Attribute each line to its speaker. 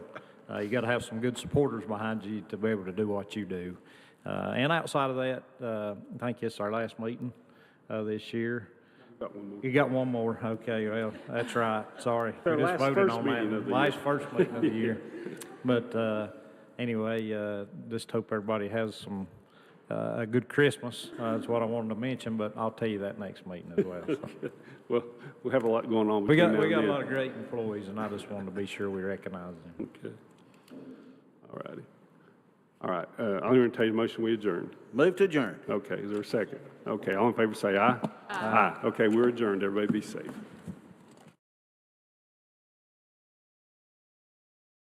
Speaker 1: Uh, you got to have some good supporters behind you to be able to do what you do. Uh, and outside of that, uh, I think it's our last meeting uh, this year.
Speaker 2: Got one more.
Speaker 1: You got one more. Okay, well, that's right. Sorry.
Speaker 2: Our
Speaker 1: We just
Speaker 2: last
Speaker 1: voted
Speaker 2: first
Speaker 1: on that.
Speaker 2: meeting of the
Speaker 1: Last first meeting of the year. But uh, anyway, uh, just hope everybody has some, uh, a good Christmas. Uh, That's what I wanted to mention, but I'll tell you that next meeting as well. so.
Speaker 2: Well, we have a lot going on
Speaker 1: We
Speaker 2: between now
Speaker 1: got,
Speaker 2: and
Speaker 1: we got a
Speaker 2: then.
Speaker 1: lot of great employees, and I just wanted to be sure we recognize them.
Speaker 2: Okay. All righty. All right, uh, I'll entertain a motion, we adjourn.
Speaker 3: Move to adjourn.
Speaker 2: Okay, is there a second? Okay, all in favor, say aye. Aye. Okay, we're adjourned, everybody be safe.